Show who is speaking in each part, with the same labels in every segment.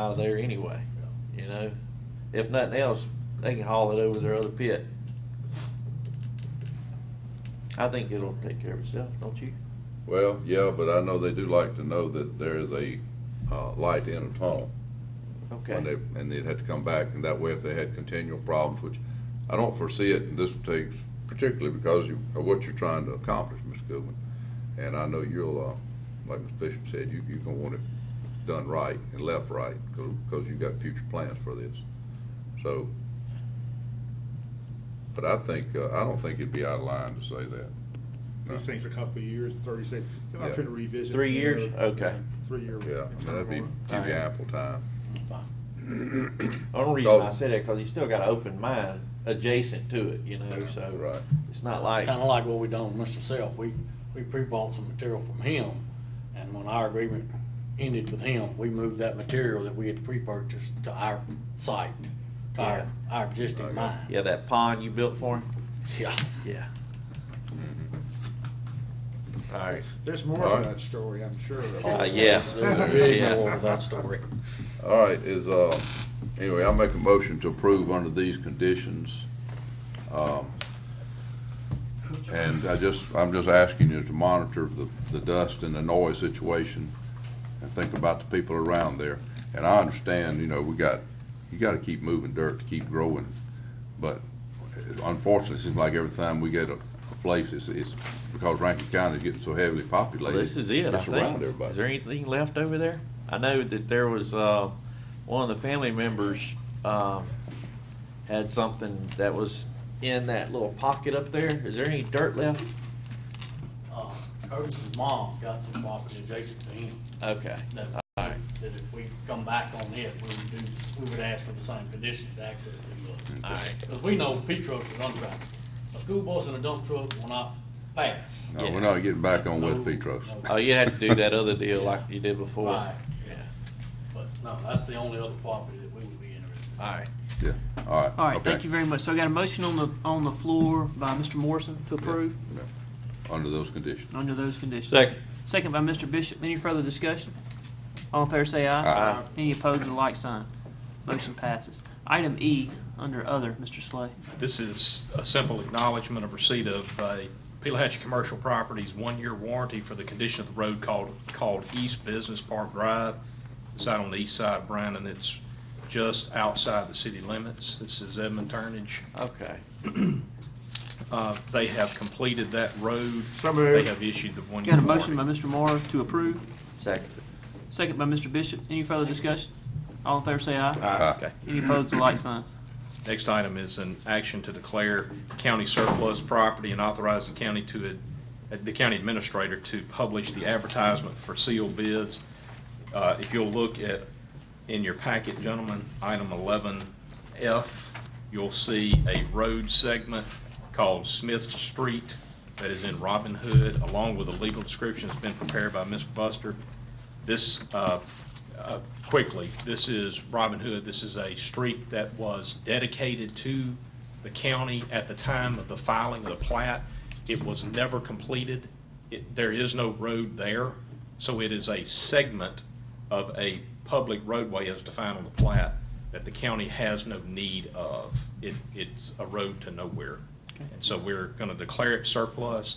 Speaker 1: out of there anyway, you know? If nothing else, they can haul it over their other pit. I think it'll take care of itself, don't you?
Speaker 2: Well, yeah, but I know they do like to know that there is a, uh, light in a tunnel. when
Speaker 1: Okay,
Speaker 2: they- And they'd have to come back, and that way if they had continual problems, which I don't foresee it in this takes, particularly because you- of what you're trying to accomplish, Ms. Goodwin. And I know you'll, uh, like Ms. Bishop said, you, you're gonna want it done right and left right, because, you've got future plans for this. So, but I think, uh, I don't think it'd be out of line to say that.
Speaker 3: These things a couple of years, thirty six, I'm
Speaker 2: Yeah.
Speaker 3: trying to revisit.
Speaker 1: Three
Speaker 3: you
Speaker 1: years?
Speaker 3: know,
Speaker 1: Okay.
Speaker 3: Three year.
Speaker 2: Yeah, I mean, that'd be,
Speaker 3: turnaround.
Speaker 2: give you ample time.
Speaker 1: only reason I
Speaker 2: Because-
Speaker 1: said that, cause you still got an open mine adjacent to it, you know, so.
Speaker 2: Right.
Speaker 1: It's not like,
Speaker 4: Kinda like what we done with Mr. Self, we, we pre-bought some material from him, and when our agreement ended with him, we moved that material that we had pre-purchased to our site, to our, our existing
Speaker 2: Okay.
Speaker 4: mine.
Speaker 1: yeah, that pond you built for him?
Speaker 4: Yeah.
Speaker 1: Yeah.
Speaker 2: Mm-hmm.
Speaker 1: Alright,
Speaker 3: There's more
Speaker 2: All right.
Speaker 3: to that story, I'm sure.
Speaker 1: uh, yeah,
Speaker 4: Big moral
Speaker 1: yeah.
Speaker 4: of that story.
Speaker 2: All right, is, uh, anyway, I'll make a motion to approve under these conditions. Um, And I just, I'm just asking you to monitor the, the dust and the noise situation and think about the people around there. And I understand, you know, we got, you gotta keep moving dirt to keep growing, but unfortunately, it seems like every time we get a, a place, it's, it's because Rankin County is getting so heavily
Speaker 1: Well,
Speaker 2: populated.
Speaker 1: This is it, I
Speaker 2: It's around
Speaker 1: think.
Speaker 2: everybody.
Speaker 1: Is there anything left over there? I know that there was, uh, one of the family members, um, had something that was in that little pocket up there. Is there any dirt left?
Speaker 4: Uh, Curtis's mom got some property adjacent to him,
Speaker 1: Okay.
Speaker 4: that,
Speaker 1: All right.
Speaker 4: that if we come back on it, we would do, we would ask for the same conditions to access the
Speaker 1: All right.
Speaker 4: Because we know P trucks are dump trucks. A school bus and a dump truck will not pass.
Speaker 2: No, we're not getting back on West Petros.
Speaker 1: Oh, you had to do that other deal like you did before.
Speaker 4: Right, yeah. But no, that's the only other property that we would be interested in.
Speaker 1: All right.
Speaker 2: Yeah, all right.
Speaker 5: All right,
Speaker 2: okay.
Speaker 5: thank you very much. So I got a motion on the, on the floor by Mr. Morrison to approve
Speaker 2: Yeah. Under those conditions.
Speaker 5: under those conditions.
Speaker 1: Second.
Speaker 5: Second by Mr. Bishop. Any further discussion? All in favor say aye.
Speaker 2: Aye.
Speaker 5: Any opposed, the like sign. Motion passes. Item E, under other, Mr. Slay.
Speaker 6: This is a simple acknowledgement of receipt of a Peleachic Commercial Properties one-year warranty for the condition of the road called, called East Business Park Drive. It's out on the east side of Brandon. It's just outside the city limits. This is Edmund Turnage.
Speaker 1: Okay.
Speaker 6: Uh, They have completed that road.
Speaker 3: So moved.
Speaker 6: They have issued the one-year
Speaker 5: Got a
Speaker 6: warranty.
Speaker 5: motion by Mr. Morrow to approve,
Speaker 1: Second.
Speaker 5: second by Mr. Bishop. Any further discussion? All in favor say aye.
Speaker 2: Aye.
Speaker 6: Okay.
Speaker 5: Any opposed, the like sign.
Speaker 6: Next item is an action to declare county surplus property and authorize the county to, ad- the county administrator to publish the advertisement for sealed bids. Uh, If you'll look at, in your packet, gentlemen, item 11F, you'll see a road segment called Smith Street that is in Robin Hood, along with a legal description that's been prepared by Ms. Buster. This, uh, uh, quickly, this is Robin Hood. This is a street that was dedicated to the county at the time of the filing of the plat. It was never completed. It- There is no road there, so it is a segment of a public roadway as defined on the plat that the county has no need of. It, it's a road to nowhere. And so we're going to declare it surplus,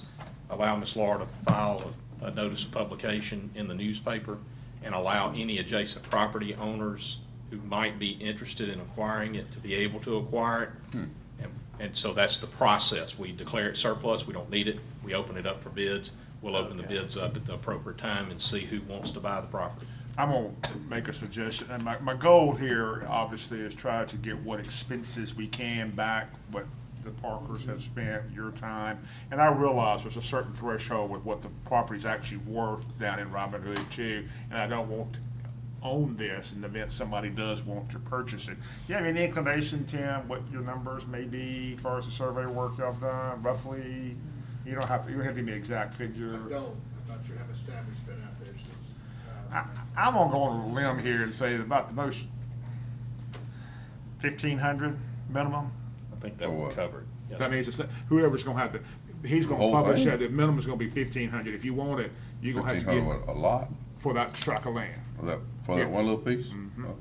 Speaker 6: allow Ms. Laura to file a, a notice of publication in the newspaper, and allow any adjacent property owners who might be interested in acquiring it to be able to acquire it. And, and so that's the process. We declare it surplus, we don't need it, we open it up for bids. We'll open the
Speaker 1: Okay.
Speaker 6: bids up at the appropriate time and see who wants to buy the property.
Speaker 3: I'm gonna make a suggestion, and my, my goal here, obviously, is try to get what expenses we can back, what the Parkers have spent, your time, and I realize there's a certain threshold with what the property's actually worth down in Robin Hood too, and I don't want to own this in the event somebody does want to purchase it. You have any inclination, Tim, what your numbers may be as far as the survey work y'all done, roughly? You don't have, to. you don't have to give me an exact figure.
Speaker 7: I don't, I'm not sure how much time we spent out there since, uh,
Speaker 3: I, I'm gonna go on a limb here and say about the most fifteen hundred minimum.
Speaker 6: I think that
Speaker 2: For
Speaker 6: will
Speaker 2: what?
Speaker 6: cover it. Yes,
Speaker 3: That means it's, whoever's gonna have to, he's gonna
Speaker 2: Whole
Speaker 3: publish
Speaker 2: thing?
Speaker 3: that, the minimum's gonna be fifteen hundred. If you want it, you're gonna have
Speaker 2: Fifteen
Speaker 3: to
Speaker 2: hundred,
Speaker 3: get
Speaker 2: a lot,
Speaker 3: for that tract of land. Mm-hmm.
Speaker 2: for that, for that one little piece? Oh,